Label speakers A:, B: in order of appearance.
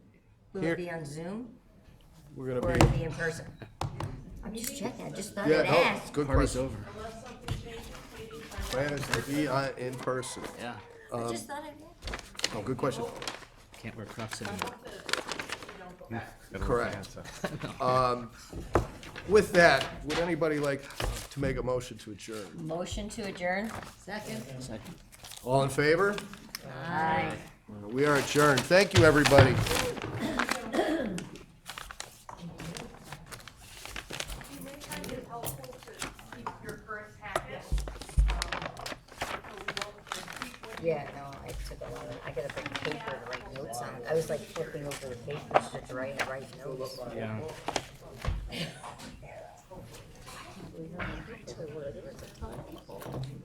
A: Will it
B: Here.
A: be on Zoom
B: We're gonna
A: or
B: be.
A: will it be in person? I'm just checking, I just thought
B: Yeah,
A: I'd
B: no, it's a
A: ask.
B: good
C: Party's
B: question.
C: over.
B: Plan is to be on, in person.
C: Yeah.
A: I
B: um,
A: just thought I'd
B: No, good question.
C: Can't wear Crocs anymore.
B: Correct. Um, With that, would anybody like to make a motion to adjourn?
A: ask. Motion to adjourn? Second.
C: Second.
B: All in favor?
A: Aye.
B: We are adjourned. Thank you, everybody.
D: You may find it helpful to keep your current packet. um, So we don't repeat what
A: Yeah, no, I took a lot of, I gotta bring paper to write notes on. I was like flipping over the papers to write, to write notes.
C: Yeah.
A: We don't have to worry, there's a ton of people.